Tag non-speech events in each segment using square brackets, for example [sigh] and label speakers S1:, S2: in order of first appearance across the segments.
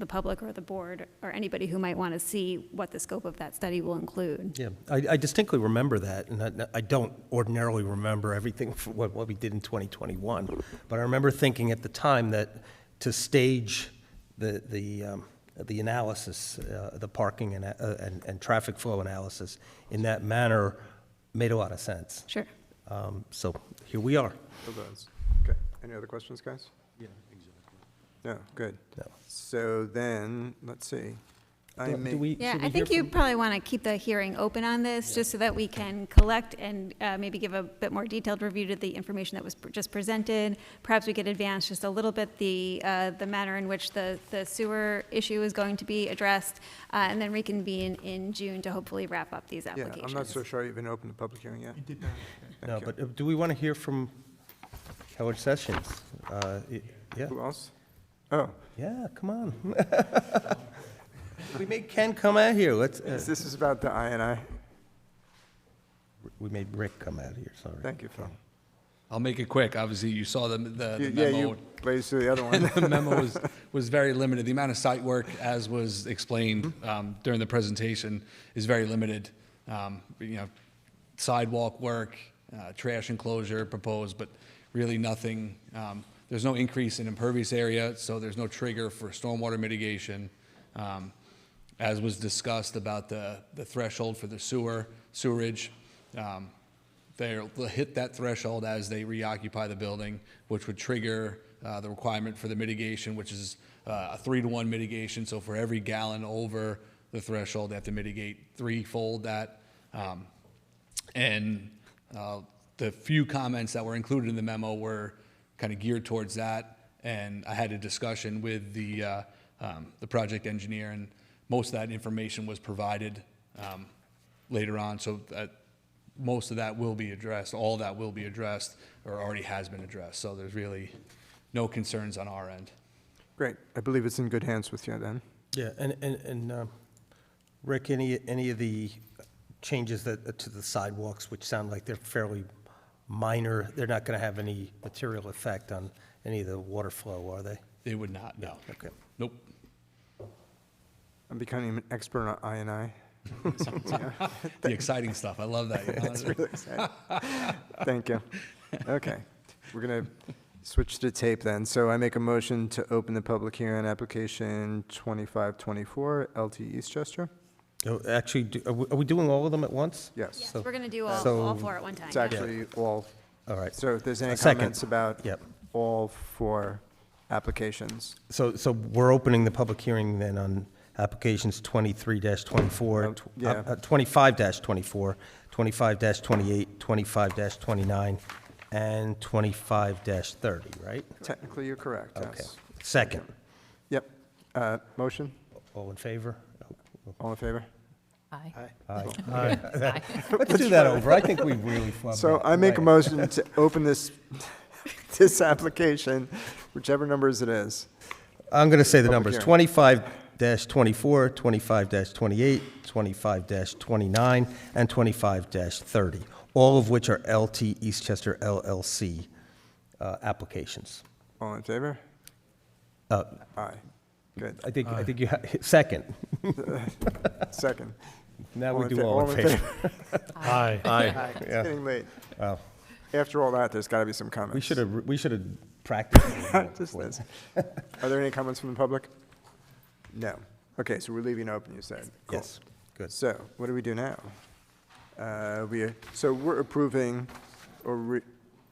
S1: the public or the board or anybody who might want to see what the scope of that study will include.
S2: Yeah, I I distinctly remember that, and I- I don't ordinarily remember everything [laughs] for what what we did in 2021, but I remember thinking at the time that to stage the the um, the analysis, uh, the parking and uh, and and traffic flow analysis in that manner made a lot of sense.
S1: Sure.
S2: Um, So here we are.
S3: It does. Okay, any other questions, guys? Yeah, exactly. No, good.
S2: No.
S3: So then, let's see. I
S2: Do- do
S3: make,
S2: we-
S1: Yeah,
S2: should we
S1: I think
S2: hear
S1: you
S2: from-
S1: probably want to keep the hearing open on this, just so that we can collect and uh, maybe give a bit more detailed review to the information that was pr- just presented. Perhaps we could advance just a little bit the, uh, the manner in which the the sewer issue is going to be addressed, uh, and then reconvene in June to hopefully wrap up these
S3: yeah,
S1: applications.
S3: I'm not so sure I even opened the public hearing yet.
S2: No,
S3: Thank you.
S2: but uh, do we want to hear from Howard Sessions? Uh, y- Yeah,
S3: Who else? Oh,
S2: yeah, come on. [laughs] We made Ken come out here, let's. uh,
S3: this is about the INI.
S2: We made Rick come out here, sorry.
S3: Thank you, Phil.
S4: I'll make it quick. Obviously, you saw the, the,
S3: You-
S4: the
S3: Yeah,
S4: memo.
S3: you blazed through the
S2: [laughs]
S3: other one.
S4: [laughs] the memo was, was very limited. The amount of site work, as was explained
S3: Mm-hmm.
S4: um, during the presentation, is very limited. Um, you know, sidewalk work, uh, trash enclosure proposed, but really nothing. Um, there's no increase in impervious area, so there's no trigger for stormwater mitigation. Um, as was discussed about the, the threshold for the sewer, sewerage, um, they'll they'll hit that threshold as they reoccupy the building, which would trigger uh, the requirement for the mitigation, which is uh, a three-to-one mitigation. So for every gallon over the threshold, they have to mitigate threefold that. Um, and uh, the few comments that were included in the memo were kind of geared towards that. And I had a discussion with the, uh, um, the project engineer, and most of that information was provided um, later on. So that, most of that will be addressed, all that will be addressed, or already has been addressed. So there's really no concerns on our end.
S3: Great, I believe it's in good hands with you then.
S2: Yeah, and, and, and um, Rick, any, any of the changes that, uh, to the sidewalks, which sound like they're fairly minor, they're not going to have any material effect on any of the water flow, are they?
S4: They would not, no.
S2: Okay.
S4: Nope.
S3: I'm becoming an expert on INI.
S4: The exciting stuff. I love that. Yolanda.
S3: [laughs] Thank you. Okay, we're gonna switch to tape then. So I make a motion to open the public hearing on application 2524, LT Eastchester?
S2: Oh, Actually, do- are we are we doing all of them at once?
S3: Yes.
S2: So-
S1: We're going to do all,
S2: so-
S1: all four at one time.
S3: It's
S1: yeah.
S3: actually all,
S2: All right.
S3: so if there's any
S2: A second.
S3: comments about
S2: Yep.
S3: all four applications,
S2: So, so we're opening the public hearing then on applications twenty-three twenty-four, uh,
S3: Um, yeah.
S2: twenty-five twenty-four, twenty-five twenty-eight, twenty-five twenty-nine, and twenty-five thirty, right?
S3: technically you're correct,
S2: Okay.
S3: yes.
S2: Second.
S3: Yep, Uh, motion,
S2: All in favor?
S3: all in favor?
S5: Aye.
S2: Aye. Let's do that over. I think we really flubbed
S3: So
S2: that.
S3: I make a
S2: Right. [laughs]
S3: motion to open this, [laughs] this application, whichever numbers it is.
S2: I'm going to say the
S3: Public
S2: numbers, 25-24, 25-28, 25-29, and 25-30, all of which are LT Eastchester LLC uh, applications.
S3: All in favor?
S2: Uh,
S3: Aye. Good.
S2: I think, I think you, ha- [laughs] second,
S3: Second.
S2: now
S3: All
S2: we
S3: in
S2: do
S3: fa-
S2: all in favor.
S6: Aye.
S3: Aye. It's
S2: Yeah.
S3: getting late.
S2: Wow.
S3: After all that, there's got to be some comments.
S2: We should
S3: [laughs]
S2: have, we should have practiced. a little more
S3: Just
S2: before
S3: this.
S2: that.
S3: Are there any comments from the public? No. Okay, so we're leaving it open, you said. Cool.
S2: Yes, good.
S3: So what do we do now? Uh, We, so we're approving, or re-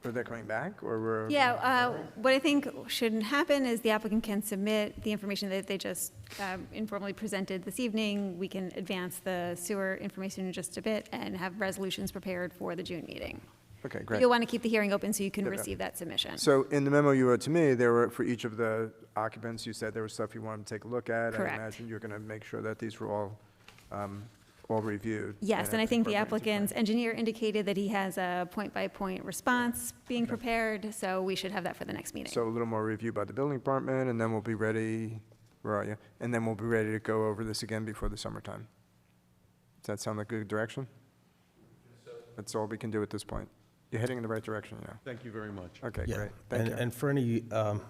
S3: or they're coming back, or we're?
S1: Yeah, uh, what I think shouldn't happen is the applicant can submit the information that they just um, informally presented this evening. We can advance the sewer information in just a bit and have resolutions prepared for the June meeting.
S3: Okay,
S1: But
S3: great.
S1: You'll want to keep the hearing open so you can
S3: Yeah, yeah.
S1: receive that submission.
S3: So in the memo you wrote to me, there were, for each of the occupants, you said there was stuff you wanted to take a look at.
S1: Correct.
S3: I imagine you're going to make sure that these were all, um, all reviewed.
S1: Yes, and I think the
S3: incorporated into plan.
S1: applicant's engineer indicated that he has a point-by-point response being prepared, so we should have that for the next meeting.
S3: So a little more review by the building department, and then we'll be ready, where are you? And then we'll be ready to go over this again before the summertime. Does that sound like a good direction? That's all we can do at this point. You're heading in the right direction, yeah.
S6: Thank you very much.
S3: Okay,
S2: Yeah.
S3: great.
S2: And-
S3: Thank you.
S2: And for any, um,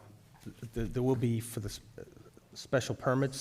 S2: th- th- there will be for the s- uh, special permits